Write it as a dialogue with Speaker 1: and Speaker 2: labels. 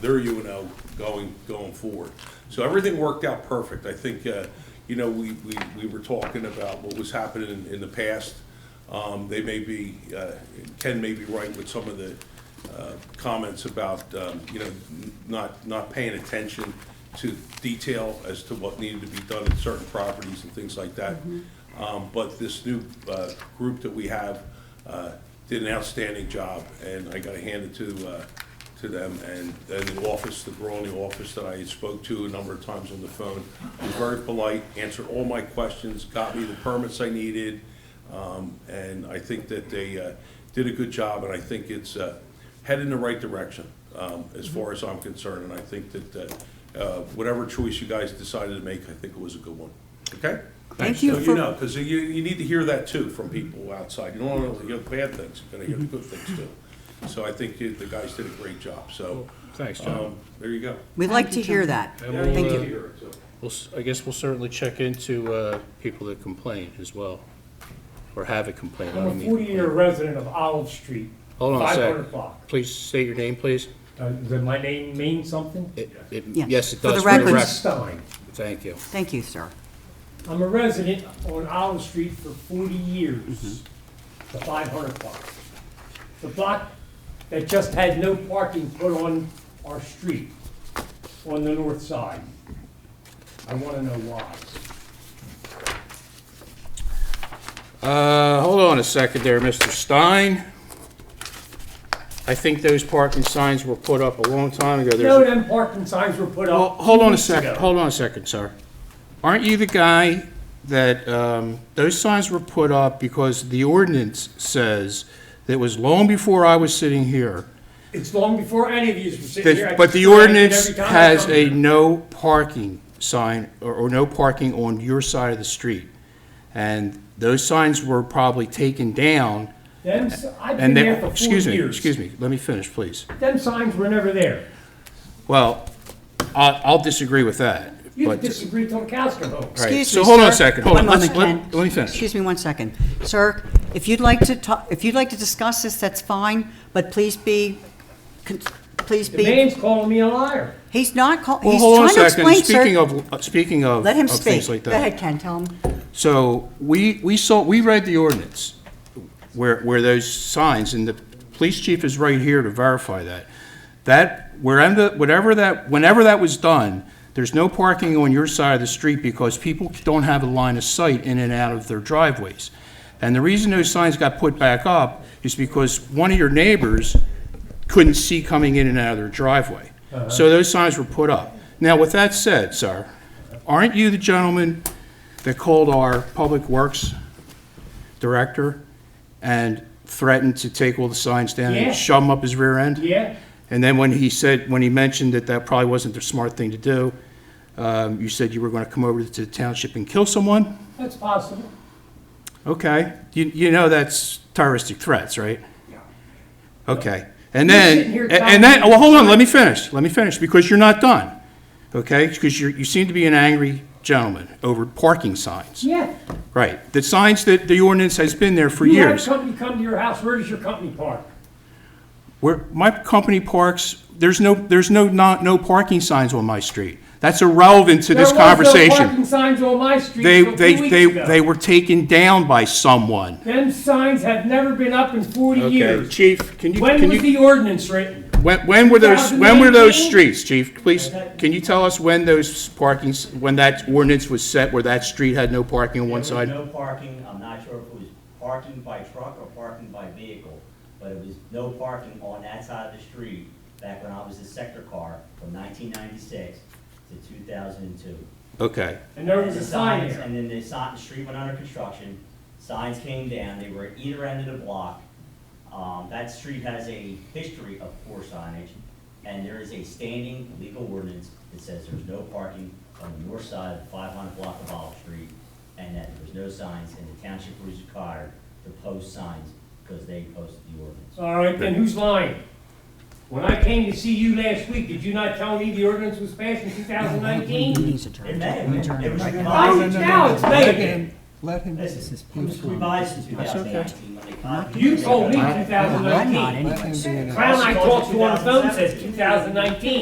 Speaker 1: their UNO going, going forward. So everything worked out perfect. I think, uh, you know, we, we, we were talking about what was happening in, in the past. Um, they may be, uh, Ken may be right with some of the, uh, comments about, um, you know, n- not, not paying attention to detail as to what needed to be done in certain properties and things like that. Um, But this new uh, group that we have uh, did an outstanding job, and I got to hand it to, uh, to them. And and the office, the girl in the office that I spoke to a number of times on the phone, was very polite, answered all my questions, got me the permits I needed. Um, And I think that they uh, did a good job, and I think it's uh, head in the right direction, um, as far as I'm concerned. And I think that uh, uh, whatever choice you guys decided to make, I think it was a good one. Okay?
Speaker 2: Thank you
Speaker 1: So
Speaker 2: for-
Speaker 1: you know, because you, you need to hear that too from people outside. You don't want to hear the bad things, you're going to hear the good things too. So I think you- the guys did a great job, so.
Speaker 3: Thanks, John.
Speaker 1: um, There you go.
Speaker 2: We'd like to hear that.
Speaker 3: And we'll,
Speaker 2: Thank
Speaker 3: uh,
Speaker 2: you.
Speaker 3: We'll, s- I guess we'll certainly check into uh, people that complain as well, or have a complaint. I
Speaker 4: I'm a
Speaker 3: don't mean
Speaker 4: forty-year
Speaker 3: complain.
Speaker 4: resident of Olive Street.
Speaker 3: Hold on a
Speaker 4: Five
Speaker 3: sec.
Speaker 4: hundred block.
Speaker 3: Please state your name, please.
Speaker 4: Uh, Does my name mean something?
Speaker 3: It- it-
Speaker 2: Yeah.
Speaker 3: Yes, it
Speaker 2: For the
Speaker 3: does.
Speaker 2: record.
Speaker 4: Richard
Speaker 3: rec-
Speaker 4: Stein.
Speaker 3: Thank you.
Speaker 2: Thank you, sir.
Speaker 4: I'm a resident on Olive Street for forty years,
Speaker 3: Mm-hmm.
Speaker 4: the five hundred block. The block that just had no parking put on our street, on the north side. I wanna know why.
Speaker 3: Uh, hold on a second there, Mr. Stein. I think those parking signs were put up a long time ago. There's
Speaker 4: No,
Speaker 3: a-
Speaker 4: them parking signs were put
Speaker 3: Well,
Speaker 4: up.
Speaker 3: hold
Speaker 4: two
Speaker 3: on a
Speaker 4: weeks
Speaker 3: second,
Speaker 4: ago.
Speaker 3: hold on a second, sir. Aren't you the guy that, um, those signs were put up because the ordinance says that it was long before I was sitting here.
Speaker 4: It's long before any of you were sitting here. I
Speaker 3: that- But
Speaker 4: can
Speaker 3: the
Speaker 4: see it every
Speaker 3: ordinance
Speaker 4: time I
Speaker 3: has
Speaker 4: come
Speaker 3: a
Speaker 4: here.
Speaker 3: no parking sign, or, or no parking on your side of the street. And those signs were probably taken down,
Speaker 4: Them, s- I've been
Speaker 3: and they,
Speaker 4: there for forty
Speaker 3: excuse
Speaker 4: years.
Speaker 3: me, excuse me, let me finish, please.
Speaker 4: Them signs were never there.
Speaker 3: Well, I, I'll disagree with that,
Speaker 4: You
Speaker 3: but.
Speaker 4: disagree till the cows come home.
Speaker 3: All right,
Speaker 2: Excuse
Speaker 3: so
Speaker 2: me,
Speaker 3: hold on a
Speaker 2: sir.
Speaker 3: second. Hold
Speaker 2: One
Speaker 3: on. Let's-
Speaker 2: moment,
Speaker 3: let-
Speaker 2: Ken.
Speaker 3: let me finish.
Speaker 2: Excuse me one second. Sir, if you'd like to talk, if you'd like to discuss this, that's fine, but please be, con- please
Speaker 4: The
Speaker 2: be,
Speaker 4: man's calling me a liar.
Speaker 2: he's not call,
Speaker 3: Well,
Speaker 2: he's
Speaker 3: hold on a
Speaker 2: trying to
Speaker 3: second.
Speaker 2: explain,
Speaker 3: Speaking
Speaker 2: sir.
Speaker 3: of, uh, speaking of,
Speaker 2: Let him
Speaker 3: of
Speaker 2: speak.
Speaker 3: things like
Speaker 2: Go
Speaker 3: that.
Speaker 2: ahead, Ken, tell him.
Speaker 3: So we, we saw, we read the ordinance where, where those signs, and the police chief is right here to verify that. That, wherever, whatever that, whenever that was done, there's no parking on your side of the street because people don't have a line of sight in and out of their driveways. And the reason those signs got put back up is because one of your neighbors couldn't see coming in and out of their driveway. So those signs were put up. Now, with that said, sir, aren't you the gentleman that called our Public Works Director and threatened to take all the signs down
Speaker 4: Yeah.
Speaker 3: and shove them up his rear end?
Speaker 4: Yeah,
Speaker 3: And then when he said, when he mentioned that that probably wasn't the smart thing to do, um, you said you were going to come over to the township and kill someone?
Speaker 4: that's possible.
Speaker 3: Okay, you, you know that's terroristic threats, right?
Speaker 4: Yeah.
Speaker 3: Okay, and
Speaker 4: You're
Speaker 3: then,
Speaker 4: sitting here
Speaker 3: and-
Speaker 4: telling
Speaker 3: and then,
Speaker 4: me-
Speaker 3: well, hold on, let me finish, let me finish, because you're not done, okay? Because you're, you seem to be an angry gentleman over parking signs.
Speaker 4: Yeah.
Speaker 3: Right, the signs that the ordinance has been there for
Speaker 4: You have
Speaker 3: years.
Speaker 4: company come to your house, where does your company park?
Speaker 3: Where, my company parks, there's no, there's no, not, no parking signs on my street. That's irrelevant to this
Speaker 4: There was no
Speaker 3: conversation.
Speaker 4: parking signs on my street
Speaker 3: They,
Speaker 4: until
Speaker 3: they,
Speaker 4: two
Speaker 3: they,
Speaker 4: weeks
Speaker 3: they
Speaker 4: ago.
Speaker 3: were taken down by someone.
Speaker 4: Them signs have never been up in forty
Speaker 3: Okay,
Speaker 4: years.
Speaker 3: Chief, can you,
Speaker 4: When
Speaker 3: can
Speaker 4: was
Speaker 3: you,
Speaker 4: the ordinance written?
Speaker 3: when, when were those, when were those
Speaker 4: 2019?
Speaker 3: streets, Chief? Please, can you tell us when those parking, s- when that ordinance was set where that street had no parking on one side?
Speaker 5: There was no parking, I'm not sure if it was parking by truck or parking by vehicle, but it was no parking on that side of the street back when I was a sector car from nineteen ninety-six to two thousand and two.
Speaker 3: Okay,
Speaker 4: And there was a sign there.
Speaker 5: And then the sign, the street went under construction, signs came down, they were at either end of the block. Um, that street has a history of poor signage, and there is a standing legal ordinance that says there's no parking on the north side of the five hundred block of Olive Street, and that there's no signs, and the township was required to post signs, because they posted the ordinance.
Speaker 4: All right, then who's lying? When I came to see you last week, did you not tell me the ordinance was passed in two thousand
Speaker 2: He
Speaker 4: nineteen?
Speaker 2: needs a turn.
Speaker 5: It may have been, it was
Speaker 4: Why
Speaker 5: revised,
Speaker 4: is it now it's vacant?
Speaker 6: Let him,
Speaker 5: listen, it was revised in two thousand nineteen when they copied. it.
Speaker 4: You told me two
Speaker 2: Well,
Speaker 4: thousand
Speaker 2: I'm not
Speaker 4: nineteen.
Speaker 2: anyway.
Speaker 6: let him be in it.
Speaker 4: Clown I talked to on the phone says two thousand nineteen.